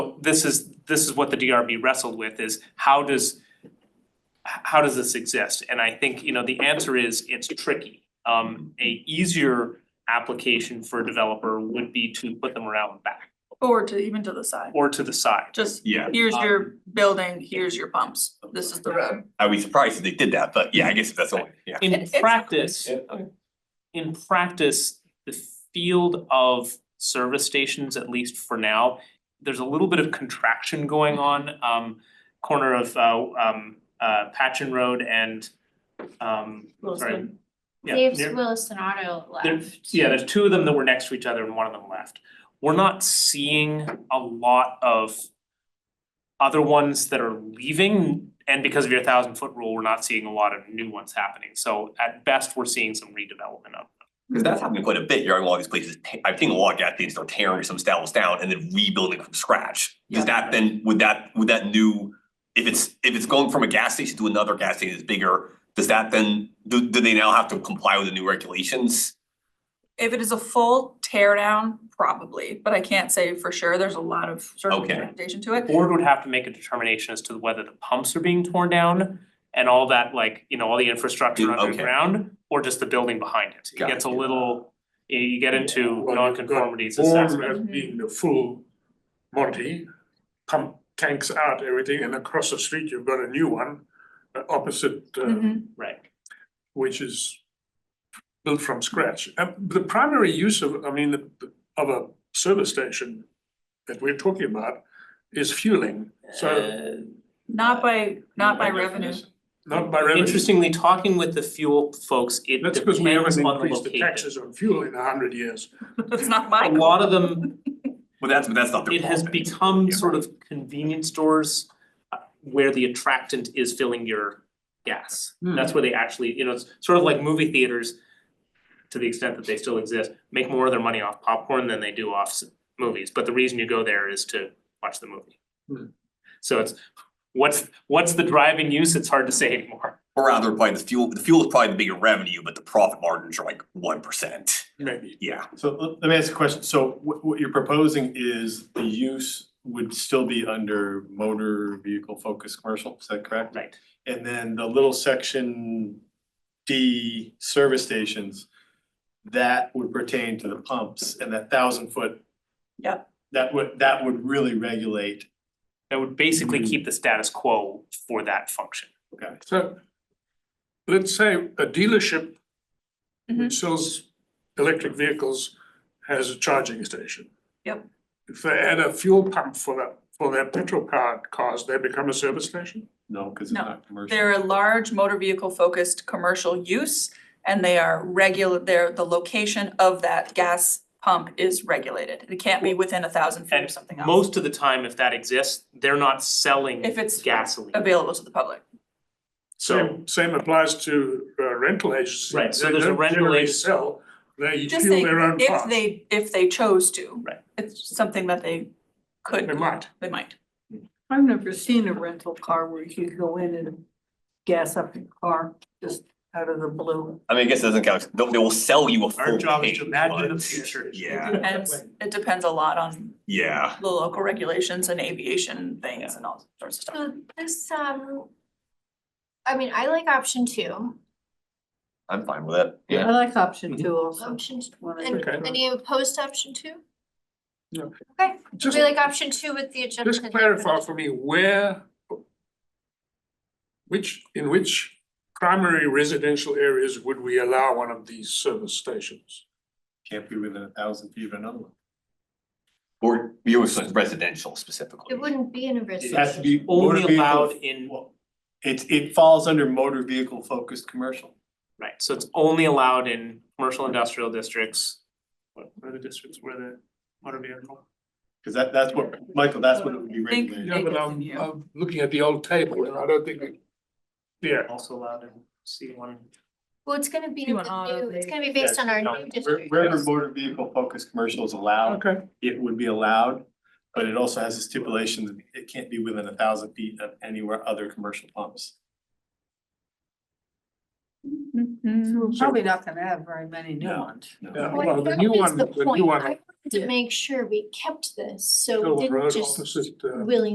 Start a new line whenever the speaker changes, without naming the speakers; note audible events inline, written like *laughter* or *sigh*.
this is, this is what the DRB wrestled with is how does h- how does this exist? And I think, you know, the answer is it's tricky. Um, a easier application for a developer would be to put them around the back
Or to even to the side,
or to the side.
just
Yeah,
here's your building, here's your pumps, this is the road.
I'd be surprised if they did that, but yeah, I guess that's all, yeah.
In
It's-
practice,
okay.
in practice, the field of service stations, at least for now, there's a little bit of contraction going on, um, corner of, uh, um, uh, Patchen Road and, um, sorry.
Wilson.
Yeah,
Dave's
near-
Williston Auto
there-
left.
yeah, there's two of them that were next to each other and one of them left. We're not seeing a lot of other ones that are leaving, and because of your thousand foot rule, we're not seeing a lot of new ones happening. So at best, we're seeing some redevelopment of
Cause that's happening quite a bit, you're in a lot of these places, ta- I've seen a lot of gas stations, they're tearing some stables down and then rebuilding from scratch.
Yeah.
Does that then, would that, would that new, if it's, if it's going from a gas station to another gas station that's bigger, does that then, do, do they now have to comply with the new regulations?
If it is a full tear down, probably, but I can't say for sure, there's a lot of sort of
Okay.
interpretation to it.
board would have to make a determination as to whether the pumps are being torn down and all that, like, you know, all the infrastructure
Mm, okay.
underground, or just the building behind it. It gets a little, you you get into
Well, you've got
non-conformities
Born
assessment.
as being the full Monty, pump tanks out, everything, and across the street, you've got a new one. uh, Opposite, uh,
Mhm.
Right,
which is built from scratch. And the primary use of, I mean, the- the- of a service station that we're talking about is fueling, so
Uh,
Not by, not by revenue,
not by revenue.
Interestingly, talking with the fuel folks, it depends
That's because we haven't
on the
increased the
location.
taxes on fuel in a hundred years.
*laughs* that's not
A
my.
lot of them,
Well, that's, but that's not their
it has
fault then.
become
Yeah.
sort of convenience stores uh, where the attractant is filling your gas. That's where they actually, you know, it's sort of like movie theaters, to the extent that they still exist, make more of their money off popcorn than they do off s- movies, but the reason you go there is to watch the movie.
Hmm.
So it's, what's, what's the driving use? It's hard to say anymore.
Or rather, by the fuel, the fuel is probably the bigger revenue, but the profit margins are like one percent,
Maybe.
yeah.
So let- let me ask a question. So what what you're proposing is the use would still be under motor vehicle focused commercial, is that correct?
Right.
And then the little section D service stations, that would pertain to the pumps and that thousand foot.
Yep.
That would, that would really regulate,
That would
Hmm.
basically keep the status quo for that function.
okay,
So let's say a dealership
Mhm.
which sells electric vehicles has a charging station.
Yep.
If they add a fuel pump for that, for their petrol powered cars, they become a service station?
no, because it's
No,
not commercial.
They're a large motor vehicle focused commercial use and they are regular, they're, the location of that gas pump is regulated. It can't be within a thousand feet or
And
something else.
Most of the time, if that exists, they're not selling
If it's
gasoline.
Available to the public.
So
Same- Same applies to uh, rental agencies.
Right, so
They
there's a
don't
rental
generally
agency-
Sell, they
Just
fuel
saying,
their own
if
cars.
they, if they chose to.
Right.
It's something that they could.
They might.
They might.
I've never seen a rental car where you could go in and gas up your car just out of the blue.
I mean, I guess it doesn't count, they they will sell you a full
our job is to
tank,
imagine the
but-
future.
Yeah,
And it's- it depends a lot on
yeah,
the local regulations and aviation things and all sorts of stuff.
So this, um, I mean, I like option two,
I'm fine with it, yeah.
I like option two also.
option, t-
when I-
and
Okay.
any opposed to option two?
No.
Okay,
Just,
we like option two with the adjustment.
just clarify for me where which, in which primary residential areas would we allow one of these service stations?
Can't be within a thousand feet of another one.
Or you was residential specifically.
It wouldn't be in a
It has
residential.
to be motor
Only
vehicle-
allowed in,
Well, It it falls under motor vehicle focused commercial.
right, so it's only allowed in commercial industrial districts. What what are the districts where the motor vehicle?
Cause that, that's what, Michael, that's what it would be
Think-
regulated.
Yeah, but
Acres
I'm
in here.
I'm looking at the old table and I don't think it. Yeah,
Also allowed in C one.
Well, it's gonna be
You
in
want
the
all of
new, it's
the-
gonna be based on our
no,
new
Where-
district.
Wherever motor vehicle focused commercial is allowed,
okay,
it would be allowed, but it also has a stipulation that it can't be within a thousand feet of anywhere other commercial pumps.
We're probably not gonna have very many new ones.
yeah,
Well,
well, the
that
new
is
one,
the
the new
point.
one,
I to make sure we kept this, so
Hill
we
Road
didn't just
opposite, uh,
willy